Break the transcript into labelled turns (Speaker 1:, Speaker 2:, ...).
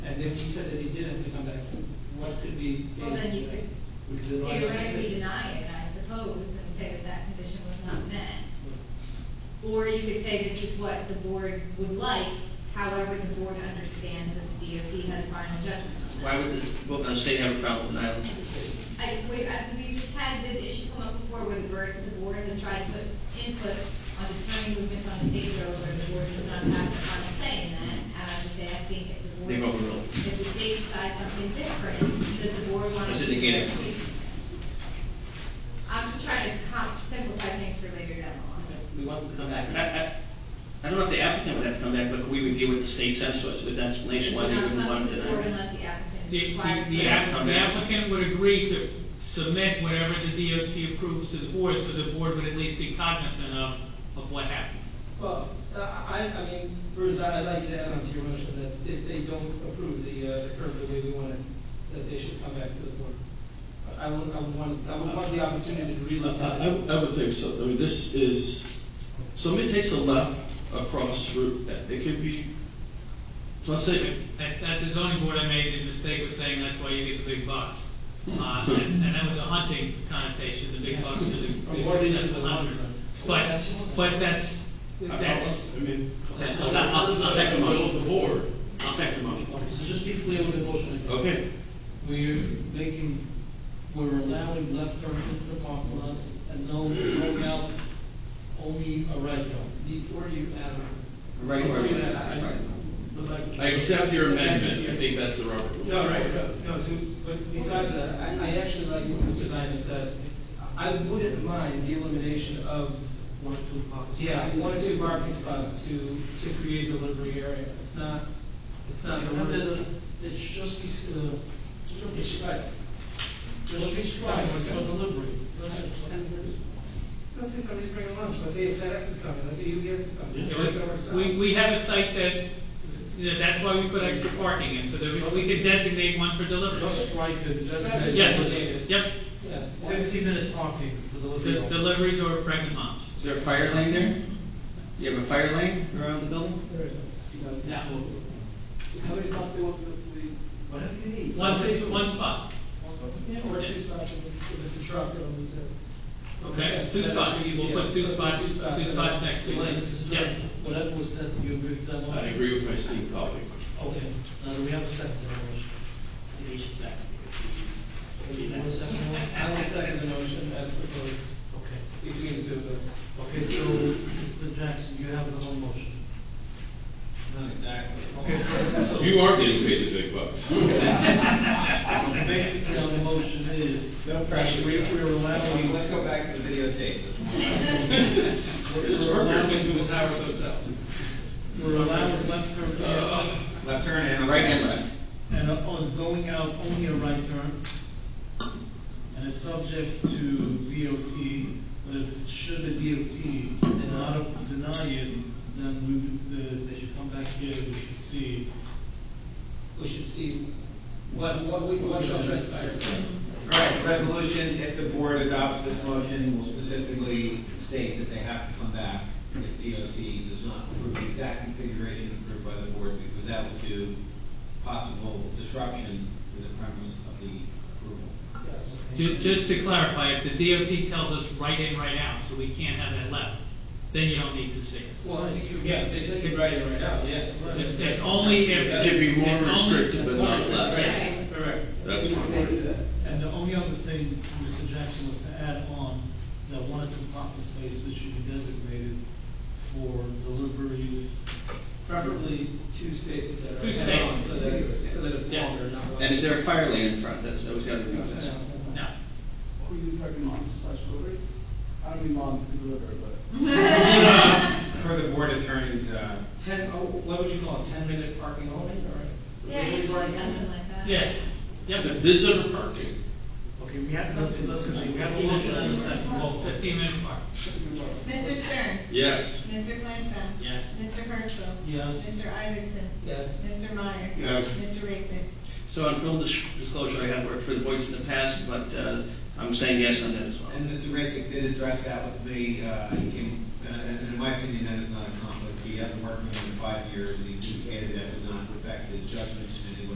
Speaker 1: then he said that he didn't, to come back, what could be?
Speaker 2: Well, then you could
Speaker 1: We could rely on that
Speaker 2: theoretically
Speaker 1: condition.
Speaker 2: deny it, I suppose, and say that that condition was not met. Or you could say this is what the board would like, however, the board understands that the DOT has final judgment on that.
Speaker 3: Why would the, well, the state have a problem with denial?
Speaker 2: I, we, I, we just had this issue come up before where the board, the board has tried to put input on determining movements on a state road where the board does not have the final say in that. And I'm just asking if the board.
Speaker 3: They've overruled.
Speaker 2: If the state decides something different, does the board want to?
Speaker 3: Does it negate it?
Speaker 2: I'm just trying to comp, simplify things for later down the line.
Speaker 3: We want them to come back. I, I, I don't know if the applicant would have to come back, but could we review what the state says to us with that explanation, why they
Speaker 2: Not
Speaker 3: wouldn't
Speaker 2: come
Speaker 3: want
Speaker 2: to
Speaker 3: to
Speaker 2: the board
Speaker 3: deny?
Speaker 2: unless the applicant is
Speaker 4: The,
Speaker 2: required.
Speaker 4: the- the app- the applicant would agree to submit whatever the DOT approves to the board, so the board would at least be cognizant of, of what happened.
Speaker 1: Well, I, I mean, Bruce, I'd like you to add on to your motion that if they don't approve the, uh, the curve the way we want it, that they should come back to the board. I would, I would want, I would want the opportunity to relook at
Speaker 5: I,
Speaker 1: it.
Speaker 5: I- I would think so, I mean, this is, somebody takes a left across Route, it could be, let's say,
Speaker 4: At, at the zoning board, I made the mistake of saying that's why you get the big bucks. Uh, and, and that was a hunting connotation, the big bucks to the the successful hunters. But, but that's, that's,
Speaker 6: I mean,
Speaker 3: Okay, I'll, se- I'll, I'll second the
Speaker 6: motion of the
Speaker 3: motion.
Speaker 6: board.
Speaker 3: I'll second the motion.
Speaker 6: So just be clear with the motion. again.
Speaker 3: Okay.
Speaker 6: We're making, we're allowing left turns into the parking lot and no, no out, only a right out. Before you add a.
Speaker 3: A right or a
Speaker 6: Before you
Speaker 3: left,
Speaker 6: add a-
Speaker 3: right.
Speaker 6: But like-
Speaker 7: I accept your amendment, I think that's the rubber.
Speaker 1: No, right, no, no, to- but besides that, I, I actually like what Mr. Zion said. I wouldn't mind the elimination of,
Speaker 6: One, two, five.
Speaker 1: yeah, one or two parking spots to, to create a delivery area. It's not, it's not the
Speaker 6: And there's
Speaker 1: worst.
Speaker 6: a, it's just, be- uh, it's right. Just describe it for delivery. Go ahead.
Speaker 1: Let's say somebody's bringing lunch, let's say FedEx is coming, let's say UPS is coming.
Speaker 4: it was- we, we have a site that, you know, that's why we put extra parking in, so that we- we could designate one for delivery.
Speaker 6: Just strike it, just.
Speaker 4: Yes, yep,
Speaker 1: Yes.
Speaker 6: Fifteen minute parking for
Speaker 4: the
Speaker 6: delivery.
Speaker 4: deliveries or pregnant moms.
Speaker 3: Is there a fire lane there? You have a fire lane around the building?
Speaker 6: Yeah.
Speaker 1: How many spots do you want for the?
Speaker 6: Whatever you need.
Speaker 4: One, one spot,
Speaker 1: Yeah, or two spots, if it's, if it's a truck, it'll be two.
Speaker 4: okay, two spots, we'll put two spots, two spots next to each
Speaker 6: Wait,
Speaker 4: other.
Speaker 6: this is
Speaker 4: Yep.
Speaker 6: good. Whatever was said, you agree with that
Speaker 7: I
Speaker 6: motion?
Speaker 7: agree with my esteemed colleague.
Speaker 6: Okay, now do we have a second to the motion? Do you want a second to the motion?
Speaker 1: I will second the motion as proposed
Speaker 6: Okay,
Speaker 1: between the two of us.
Speaker 6: okay, so, Mr. Jackson, you have the whole motion.
Speaker 8: Not exactly.
Speaker 6: Okay, so, so
Speaker 7: You are getting paid the big bucks.
Speaker 6: basically, our motion is,
Speaker 8: No pressure.
Speaker 6: we, we're allowing.
Speaker 8: Let's go back to the videotape.
Speaker 6: We're allowing, we're allowing left turn there,
Speaker 8: Left turn and.
Speaker 3: Right and left.
Speaker 6: and uh, on going out, only a right turn. And it's subject to DOT, but if, should the DOT deny, deny it, then we, would- the, they should come back here, we should see.
Speaker 1: We should see what, what we, what shall transpire.
Speaker 8: All right, resolution, if the board adopts this motion, will specifically state that they have to come back if DOT does not approve the exact configuration approved by the board, because that would do possible disruption to the premise of the approval.
Speaker 1: Yes.
Speaker 4: Ju- Just to clarify, if the DOT tells us right in, right out, so we can't have that left, then you don't need to see us.
Speaker 1: Well, you, yeah, they just can write it right out, yeah.
Speaker 4: It's, it's only if.
Speaker 7: To be more
Speaker 4: it's only-
Speaker 7: restrictive, but not less.
Speaker 2: Right.
Speaker 1: Correct.
Speaker 7: That's fine.
Speaker 6: And the only other thing, Mr. Jackson, was to add on, that one or two parking spaces should be designated for deliveries.
Speaker 1: Preferably two spaces that are.
Speaker 4: Two
Speaker 1: head-on, So
Speaker 4: spaces.
Speaker 1: that it's, so that it's
Speaker 4: Yeah.
Speaker 1: longer, Uh, not.
Speaker 3: And is there a fire lane in front? That's, that was the other thing I was asking.
Speaker 4: No.
Speaker 9: Who you talking on, slash deliveries? I don't mean moms to deliver, but
Speaker 8: Per the board attorney's, uh,
Speaker 1: Ten, oh, what would you call it, ten minute parking only, or?
Speaker 2: Yeah, you could do something like that.
Speaker 4: Yeah, yep,
Speaker 7: This is a parking.
Speaker 6: Okay, we have, let's, let's, continue. we have a motion and a second, roll call.
Speaker 4: fifteen minute mark.
Speaker 2: Mr. Stern?
Speaker 7: Yes.
Speaker 2: Mr. Flansbrough.
Speaker 3: Yes.
Speaker 2: Mr. Hertzler.
Speaker 6: Yes.
Speaker 2: Mr. Isaacson.
Speaker 1: Yes.
Speaker 2: Mr. Meyer.
Speaker 3: Yes.
Speaker 2: Mr. Raisik.
Speaker 3: So on full dis- disclosure, I have worked for the Voice in the past, but, uh, I'm saying yes on that as well.
Speaker 8: And Mr. Racick did address that with me, uh, he came, uh, and in my opinion, that is not a conflict, he hasn't worked with me in five years, and he indicated that would not affect his judgment in